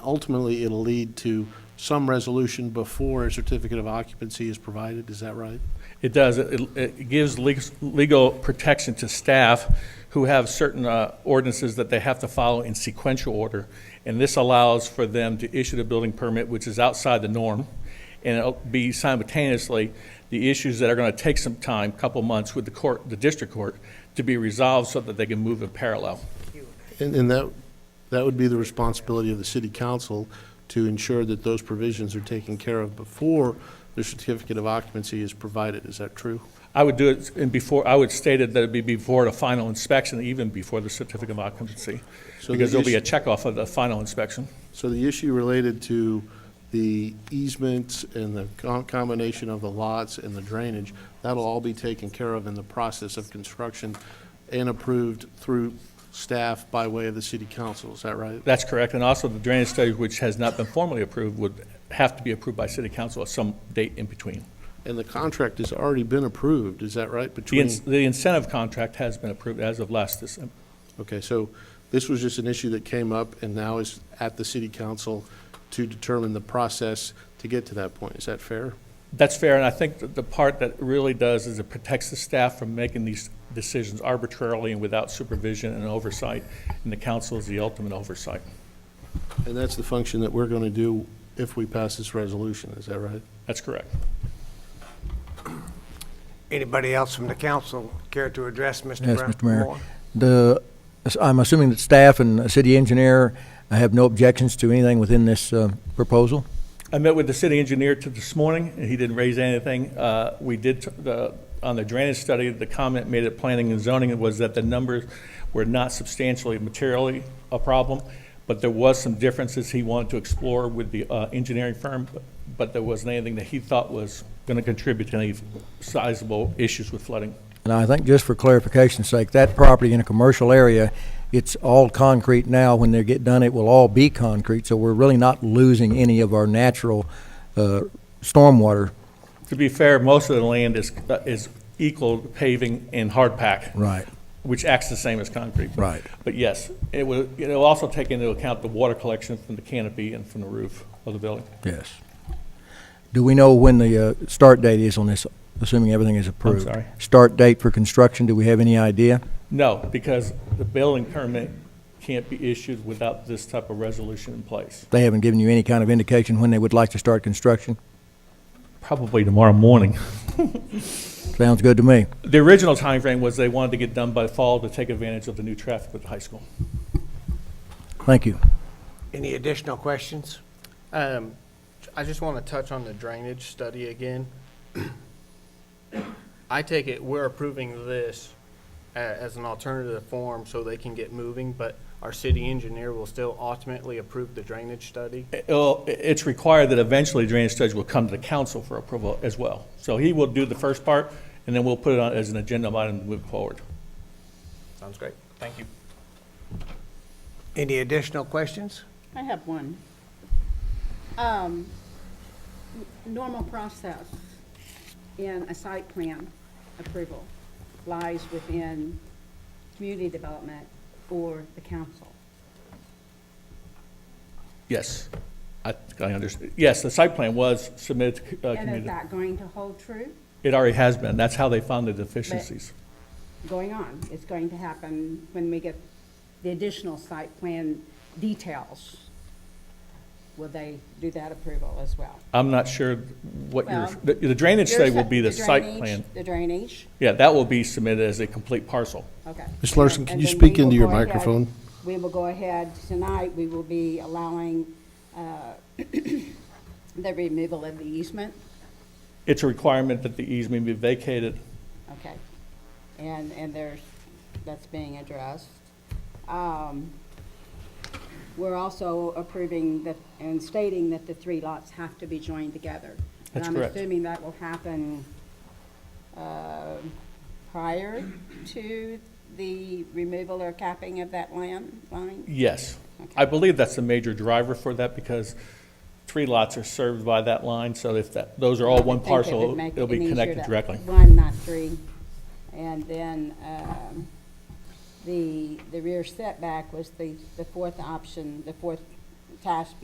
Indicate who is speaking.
Speaker 1: Ultimately, it'll lead to some resolution before a certificate of occupancy is provided, is that right?
Speaker 2: It does. It, it gives legal- legal protection to staff who have certain uh, ordinances that they have to follow in sequential order. And this allows for them to issue the building permit, which is outside the norm. And it'll be simultaneously the issues that are going to take some time, couple months with the court, the district court, to be resolved so that they can move in parallel.
Speaker 1: And, and that, that would be the responsibility of the city council to ensure that those provisions are taken care of before the certificate of occupancy is provided, is that true?
Speaker 2: I would do it in before, I would state it that it'd be before the final inspection, even before the certificate of occupancy.
Speaker 1: So the
Speaker 2: Because there'll be a
Speaker 1: issue-
Speaker 2: checkoff of the final inspection.
Speaker 1: So the issue related to the easements and the com- combination of the lots and the drainage, that'll all be taken care of in the process of construction and approved through staff by way of the city council, is that right?
Speaker 2: That's correct, and also the drainage study, which has not been formally approved, would have to be approved by city council at some date in between.
Speaker 1: And the contract has already been approved, is that right?
Speaker 2: The
Speaker 1: Between,
Speaker 2: in- the incentive contract has been approved as of last December.
Speaker 1: okay, so this was just an issue that came up and now is at the city council to determine the process to get to that point, is that fair?
Speaker 2: That's fair, and I think that the part that really does is it protects the staff from making these decisions arbitrarily and without supervision and oversight, and the council is the ultimate oversight.
Speaker 1: And that's the function that we're going to do if we pass this resolution, is that right?
Speaker 2: That's correct.
Speaker 3: Anybody else from the council care to address Mr. Brown?
Speaker 4: Yes, Mr. Mayor.
Speaker 3: Moore?
Speaker 4: The, I'm assuming that staff and the city engineer have no objections to anything within this uh, proposal?
Speaker 2: I met with the city engineer to this morning, and he didn't raise anything. Uh, We did, t- the- on the drainage study, the comment made at planning and zoning was that the numbers were not substantially materially a problem, but there was some differences he wanted to explore with the uh, engineering firm, but there wasn't anything that he thought was going to contribute to any sizable issues with flooding.
Speaker 4: And I think just for clarification's sake, that property in a commercial area, it's all concrete now. When they get done, it will all be concrete, so we're really not losing any of our natural uh, stormwater.
Speaker 2: To be fair, most of the land is, uh, is equal paving and hard pack.
Speaker 4: Right.
Speaker 2: Which acts the same as concrete.
Speaker 4: Right.
Speaker 2: But yes, it will, it'll also take into account the water collection from the canopy and from the roof of the building.
Speaker 4: Yes. Do we know when the uh, start date is on this, assuming everything is approved?
Speaker 2: sorry?
Speaker 4: Start date for construction, do we have any idea?
Speaker 2: No, because the building permit can't be issued without this type of resolution in place.
Speaker 4: They haven't given you any kind of indication when they would like to start construction?
Speaker 2: Probably tomorrow morning.
Speaker 4: Sounds good to me.
Speaker 2: The original timeframe was they wanted to get done by fall to take advantage of the new traffic with the high school.
Speaker 4: Thank you.
Speaker 3: Any additional questions?
Speaker 5: Um, I just want to touch on the drainage study again. I take it we're approving this a- as an alternative form so they can get moving, but our city engineer will still ultimately approve the drainage study?
Speaker 2: It'll- it's required that eventually drainage studies will come to the council for approval as well. So he will do the first part, and then we'll put it on as an agenda item to move forward.
Speaker 5: Sounds great. Thank you.
Speaker 3: Any additional questions?
Speaker 6: I have one. Um, n- normal process in a site plan approval lies within community development or the council.
Speaker 2: Yes, I, think I understand. Yes, the site plan was submitted to uh,
Speaker 6: And is
Speaker 2: community.
Speaker 6: that going to hold true?
Speaker 2: It already has been. That's how they found the deficiencies.
Speaker 6: Going on, it's going to happen when we get the additional site plan details. Will they do that approval as well?
Speaker 2: I'm not sure what your,
Speaker 6: Well,
Speaker 2: the- the drainage study
Speaker 6: Your
Speaker 2: will
Speaker 6: si-
Speaker 2: be the site
Speaker 6: drainage-
Speaker 2: plan.
Speaker 6: The drainage,
Speaker 2: Yeah, that will be submitted as a complete parcel.
Speaker 6: okay.
Speaker 1: Ms. Larson,
Speaker 6: And-
Speaker 1: can
Speaker 6: and
Speaker 1: you
Speaker 6: then
Speaker 1: speak
Speaker 6: we will
Speaker 1: into your
Speaker 6: go ahead-
Speaker 1: microphone?
Speaker 6: We will go ahead, tonight, we will be allowing uh, the removal of the easement,
Speaker 2: It's a requirement that the easement be vacated.
Speaker 6: okay? And, and there's, that's being addressed. Um, We're also approving that, and stating that the three lots have to be joined together.
Speaker 2: That's
Speaker 6: And I'm
Speaker 2: correct.
Speaker 6: assuming that will happen uh, prior to the removal or capping of that land line?
Speaker 2: Yes. I believe that's the major driver for that because three lots are served by that line. So if that, those are all one
Speaker 6: I think it would
Speaker 2: parcel,
Speaker 6: make
Speaker 2: it'll be
Speaker 6: it easier
Speaker 2: connected
Speaker 6: to-
Speaker 2: directly.
Speaker 6: One, not three. And then um, the, the rear setback was the, the fourth option, the fourth task